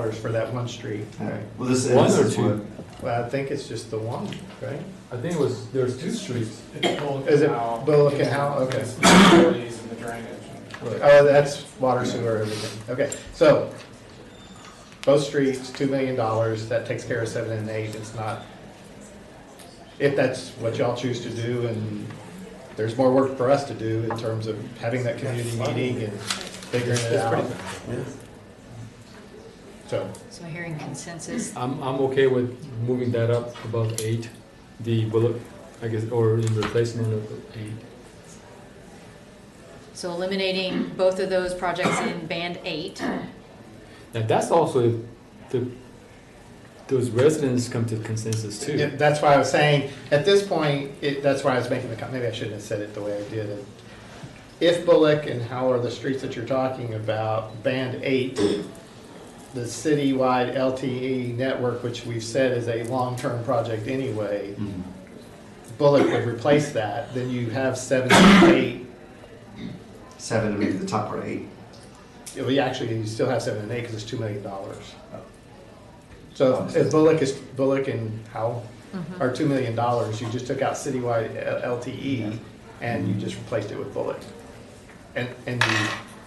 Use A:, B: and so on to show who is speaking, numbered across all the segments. A: dollars for that one street.
B: Alright, well, this is.
C: One or
B: this is
C: two?
B: what-
A: Well, I think it's just the one, right?
C: I think it was, there's two streets.
A: Is
D: Is
A: it Bullock and Howe? Okay.
D: Utilities and the drainage.
A: Oh, that's water sewer, everything. Okay, so both streets, two million dollars, that takes care of seven and eight. It's not, if that's what y'all choose to do and there's more work for us to do in terms of having that community meeting and figuring it out. So,
E: So hearing consensus,
C: I'm, I'm okay with moving that up above eight, the bullet, I guess, or in replacement of eight.
E: so eliminating both of those projects in band eight.
C: Now, that's also if the, those residents come to consensus
A: yeah,
C: too.
A: that's why I was saying, at this point, it, that's why I was making the, com- maybe I shouldn't have said it the way I did it. If Bullock and Howell are the streets that you're talking about, Band 8, the citywide LTE network, which we've said is a long-term project anyway,
B: Mm-hmm.
C: Mhm.
A: Bullock would replace that, then you have 7 and 8.
B: Seven, maybe the top or eight.
A: Yeah, well, you actually, you still have 7 and 8 because it's $2 million. So if Bullock is, Bullock and Howell
E: Mm-hmm.
A: or two million dollars, you just took out citywide L- LTE and you just replaced it with bullet. And, and you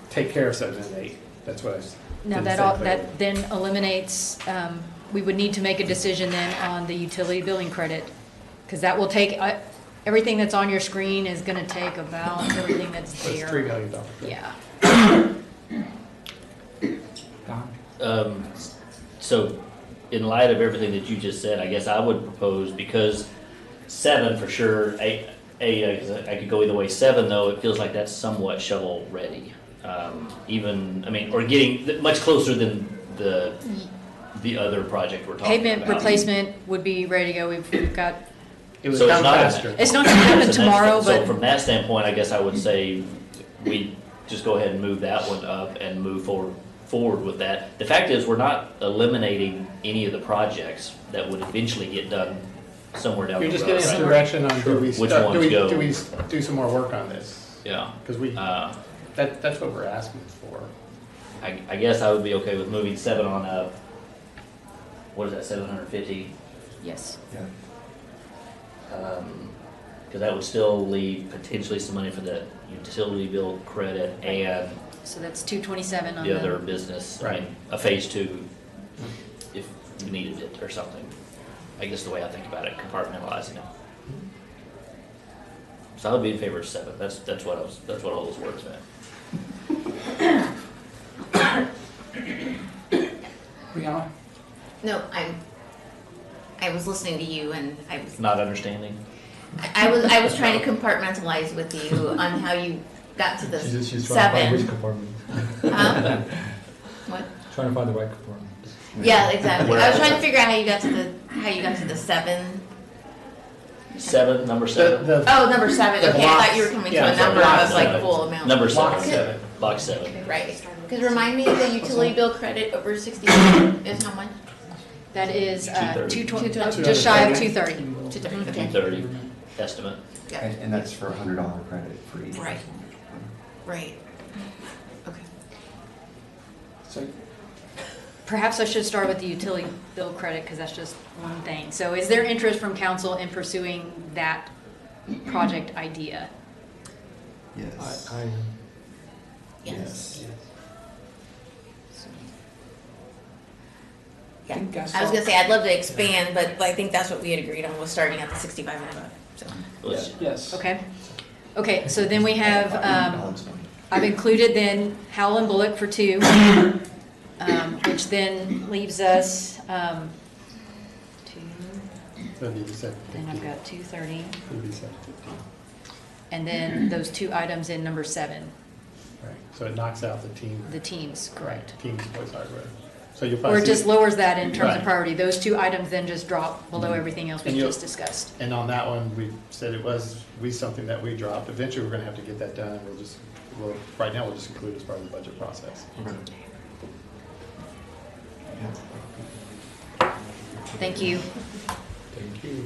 A: take care of seven and eight, that's what I was.
E: Now,
A: didn't
E: that
A: say
E: all,
A: clearly.
E: that then eliminates, um, we would need to make a decision then on the utility billing credit. Because that will take, uh, everything that's on your screen is gonna take about everything that's
A: So It's three
E: there.
A: million dollars.
E: Yeah,
F: Um, so, in light of everything that you just said, I guess I would propose, because seven for sure, eight, eight, I could- I could go either way. Seven, though, it feels like that's somewhat shovel-ready. Um, even, I mean, or getting th- much closer than the, the other project we're talking about.
E: Mm. pavement replacement would be ready to go, we've, we've got,
A: It was
F: So it's
A: done
F: not in
A: faster.
E: it's not gonna
F: So
E: happen
F: that's-
E: tomorrow,
F: So
E: but
F: from that standpoint, I guess I would say we just go ahead and move that one up and move forward, forward with that. The fact is, we're not eliminating any of the projects that would eventually get done somewhere down the
A: You're
F: road.
A: just getting
F: right?
A: some direction on do we,
F: Which
A: start- do
F: ones
A: we,
F: go?
A: do we s- do some more work on this?
F: Yeah,
A: Because we,
F: uh,
A: that, that's what we're asking for.
F: I, I guess I would be okay with moving seven on up. What is that, seven hundred fifty?
E: yes.
B: Yeah.
F: Um, Cause that would still leave potentially some money for the utility bill credit and
E: So that's two twenty-seven on
F: the other
E: the,
F: business, I mean,
A: Right.
F: a phase two, if you needed it or something. I guess the way I think about it, compartmentalizing it. So I would be in favor of seven, that's, that's what I was, that's what all those words meant.
D: Brianna?
G: No, I'm, I was listening to you and I was,
F: Not understanding,
G: I was, I was trying to compartmentalize with you on how you got to the
C: She's, just- she's trying to find which
G: seven.
C: compartment,
G: Huh? What?
C: trying to find the right compartment.
G: Yeah, exactly. I was trying to figure out how you got to the, how you got to the seven.
F: seven, number
A: The,
F: seven?
A: the
G: Oh, number seven.
A: The
G: Okay, I thought you were
A: blocks.
G: coming
A: Yeah,
G: to a
A: so
G: number. I was
F: blocks.
G: like full amount.
F: Number
A: block
F: seven,
A: seven,
F: block seven.
G: Right. Cause remind me, the utility bill credit over sixty is how much?
E: that is, uh, two
F: 230.
E: twenty,
G: Two
E: just shy of two thirty. Mm-hmm.
G: Two thirty.
F: Two
G: Okay.
F: thirty estimate.
G: Yeah.
B: And, and that's for a hundred dollar credit for each.
G: Right. Right. Okay.
E: Perhaps I should start with the utility bill credit, because that's just one thing. So is there interest from council in pursuing that project idea?
B: Yes.
C: I, I,
B: Yes.
G: Yeah,
D: think I
G: I was
D: saw-
G: gonna say, I'd love to expand, but I think that's what we had agreed on, was starting at the sixty-five and above, so.
F: Let's-
D: Yes.
E: Okay? Okay, so then we have, um,
B: Dollars money.
E: I've included then Howell and Bullock for two, um, which then leaves us, um, two, then I've got two thirty, and then those two items in number seven,
A: Right, so it knocks out the team,
E: the teams, correct?
A: right, teams, boys hardware. So you'll
E: Or
A: probably
E: it
A: see-
E: just lowers that in terms
A: Right. Mm-hmm.
E: of priority. Those two items then just drop below everything else we
A: And you'll-
E: just discussed.
A: And on that one, we said it was, we, something that we dropped. Eventually, we're gonna have to get that done, and we'll just, we'll, right now, we'll just include it as part of the budget process.
B: Yeah.
E: Thank you,
C: thank you.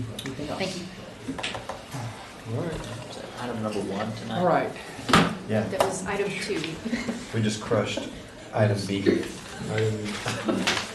E: thank you.
C: All right.
F: is that Item number one tonight.
D: All right.
B: Yeah,
E: That was item two.
B: we just crushed item B.
C: I didn't-